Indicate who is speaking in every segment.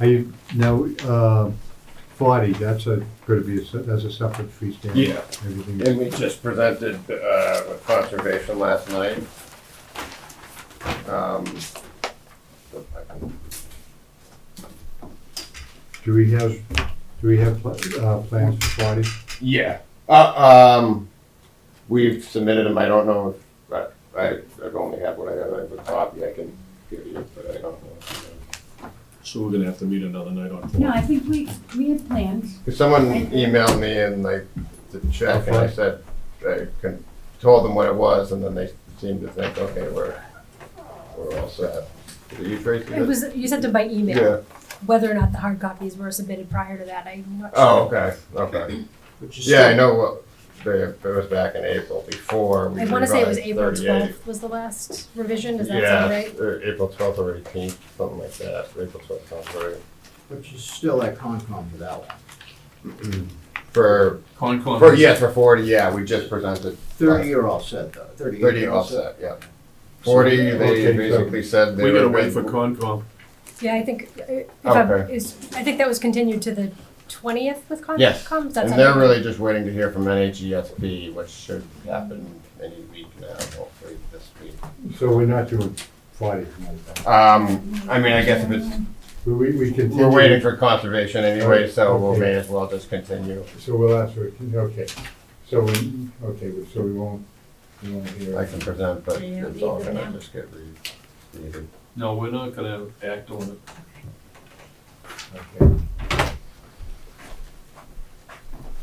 Speaker 1: Are you, now, uh, forty, that's a, gonna be, a se- that's a separate freestanding.
Speaker 2: Yeah.
Speaker 1: Everything
Speaker 2: And
Speaker 1: is,
Speaker 2: we just presented uh, with conservation last night. Um,
Speaker 1: do we have, do we have, pla- uh, plans for forty?
Speaker 2: Yeah, uh, um, we've submitted them, I don't know if, I- I, I've only had what I have, I have a copy I can give you, but I don't know.
Speaker 3: So we're gonna have to meet another night on
Speaker 4: No,
Speaker 3: four.
Speaker 4: I think we, we had plans.
Speaker 2: Because someone emailed me and like, to check, and I said, I con- told them what it was, and then they seemed to think, okay, we're, we're all set. Did you trace
Speaker 5: It
Speaker 2: it?
Speaker 5: was, you sent them by
Speaker 2: Yeah,
Speaker 5: email, whether or not the hard copies were submitted prior to that, I'm not sure.
Speaker 2: oh, okay, okay. Yeah, I know what, they, it was back in April before we
Speaker 5: I wanna say it was
Speaker 2: revised
Speaker 5: April
Speaker 2: 38.
Speaker 5: twelfth was the last revision, does that sound right?
Speaker 2: Yeah, or April twelfth or eighteenth, something like that, April twelfth, sounds right.
Speaker 6: Which is still at Concom for that one.
Speaker 2: For,
Speaker 7: Concom.
Speaker 2: for, yes, for forty, yeah, we just presented.
Speaker 6: Thirty you're all set though, thirty. you're
Speaker 2: Thirty
Speaker 6: all
Speaker 2: offset, yeah. Forty, they
Speaker 1: Okay, so-
Speaker 2: basically said they
Speaker 3: We
Speaker 2: were.
Speaker 3: gotta wait for
Speaker 2: good.
Speaker 3: Concom.
Speaker 5: Yeah, I think, uh, if I'm,
Speaker 2: Okay.
Speaker 5: is, I think that was continued to the twentieth with Con-
Speaker 2: Yes,
Speaker 5: Concom, does that
Speaker 2: And
Speaker 5: sound
Speaker 2: they're
Speaker 5: right?
Speaker 2: really just waiting to hear from NHESB, which should happen any week now, hopefully this week.
Speaker 1: So we're not doing forty tonight, then.
Speaker 2: Um, I mean, I guess if it's,
Speaker 1: we, we- we continue.
Speaker 2: we're waiting for conservation anyway, so we
Speaker 1: Okay.
Speaker 2: may as well just continue.
Speaker 1: So we'll ask for, okay, so we, okay, so we won't, we won't hear.
Speaker 2: I can present, but
Speaker 4: Yeah,
Speaker 2: it's all
Speaker 4: leave it
Speaker 2: gonna
Speaker 4: now.
Speaker 2: just get re- read.
Speaker 7: No, we're not gonna act on it.
Speaker 1: Okay.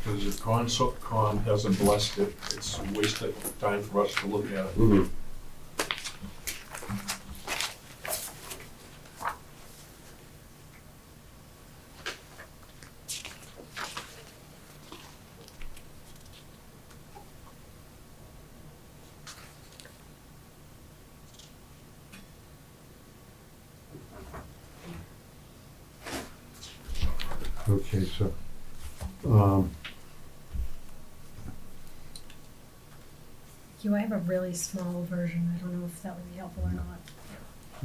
Speaker 3: Because if Concom hasn't blessed it, it's a waste of time for us to look at it.
Speaker 1: Okay, so, um,
Speaker 5: You, I have a really small version, I don't know if that would be helpful or not,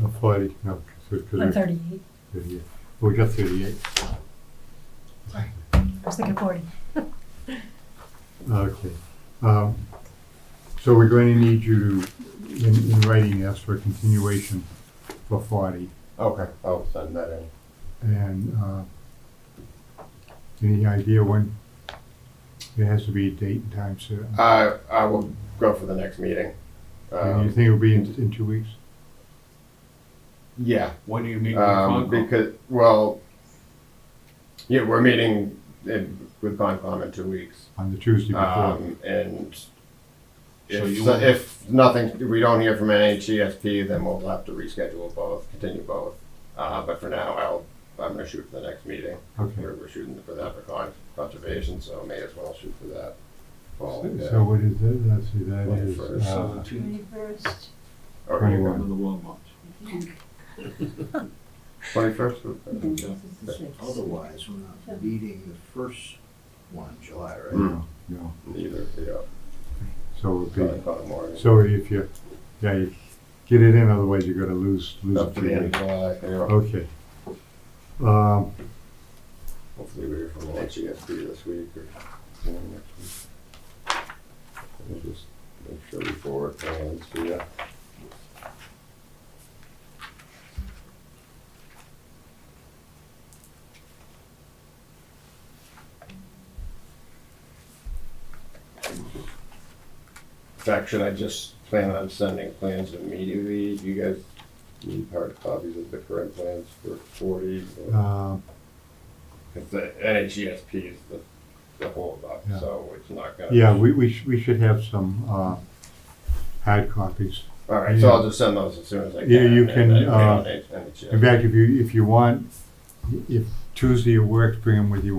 Speaker 1: uh, forty, no, because
Speaker 5: on
Speaker 1: we're
Speaker 5: thirty-eight,
Speaker 1: thirty-eight, we got thirty-eight,
Speaker 5: I was thinking forty.
Speaker 1: okay. Um, So we're going to need you to, in, in writing, ask for a continuation for forty,
Speaker 2: Okay, I'll send that in.
Speaker 1: and, uh, any idea when? There has to be a date and time certain,
Speaker 2: I, Uh, I will go for the next meeting.
Speaker 1: and you
Speaker 2: Um,
Speaker 1: think it'll be in, in two weeks?
Speaker 2: Yeah,
Speaker 7: When do you meet with
Speaker 2: um,
Speaker 7: Concom?
Speaker 2: because, well, yeah, we're meeting in- with Concom in two weeks.
Speaker 1: On the Tuesday before?
Speaker 2: Um, and
Speaker 7: So
Speaker 2: if,
Speaker 7: you
Speaker 2: so-
Speaker 7: won't-
Speaker 2: if nothing, we don't hear from NHESP, then we'll have to reschedule both, continue both. Uh, but for now, I'll, I'm gonna shoot for the next meeting.
Speaker 1: Okay.
Speaker 2: We're, we're shooting for that for con- conservation, so may as well shoot for that. Well, yeah.
Speaker 1: So what is it, let's see, that
Speaker 2: Well,
Speaker 1: is,
Speaker 2: first,
Speaker 1: uh,
Speaker 7: Seventeenth,
Speaker 4: Twenty-first,
Speaker 2: Or
Speaker 1: Twenty
Speaker 2: you
Speaker 1: one.
Speaker 2: go-
Speaker 3: Another long one.
Speaker 4: I think.
Speaker 2: Twenty-first?
Speaker 4: This is the sixth.
Speaker 6: Otherwise, we're not meeting the first one, July, right?
Speaker 2: Mm.
Speaker 1: no,
Speaker 2: Either, yeah,
Speaker 1: so it'll
Speaker 2: probably
Speaker 1: be,
Speaker 2: about a morning.
Speaker 1: so if you, yeah, you get it in, otherwise you're gonna lose, lose.
Speaker 2: Up to the end of July, yeah.
Speaker 1: Okay. Um,
Speaker 2: hopefully we're from NHESP this week or sometime next week. We'll just make sure we forward plans, yeah. In fact, should I just plan on sending plans immediately? Do you guys need hard copies of the current plans for forty? or-
Speaker 1: um,
Speaker 2: Because the NHESP is the, the holdup,
Speaker 1: Yeah.
Speaker 2: so it's not gonna.
Speaker 1: yeah, we, we should, we should have some, uh, hard copies.
Speaker 2: All right, so I'll just send those as soon as I can.
Speaker 1: Yeah, you
Speaker 2: and
Speaker 1: can,
Speaker 2: then we
Speaker 1: uh,
Speaker 2: E don't need NHESP.
Speaker 1: In fact, if you, if you want, if Tuesday works, bring them with you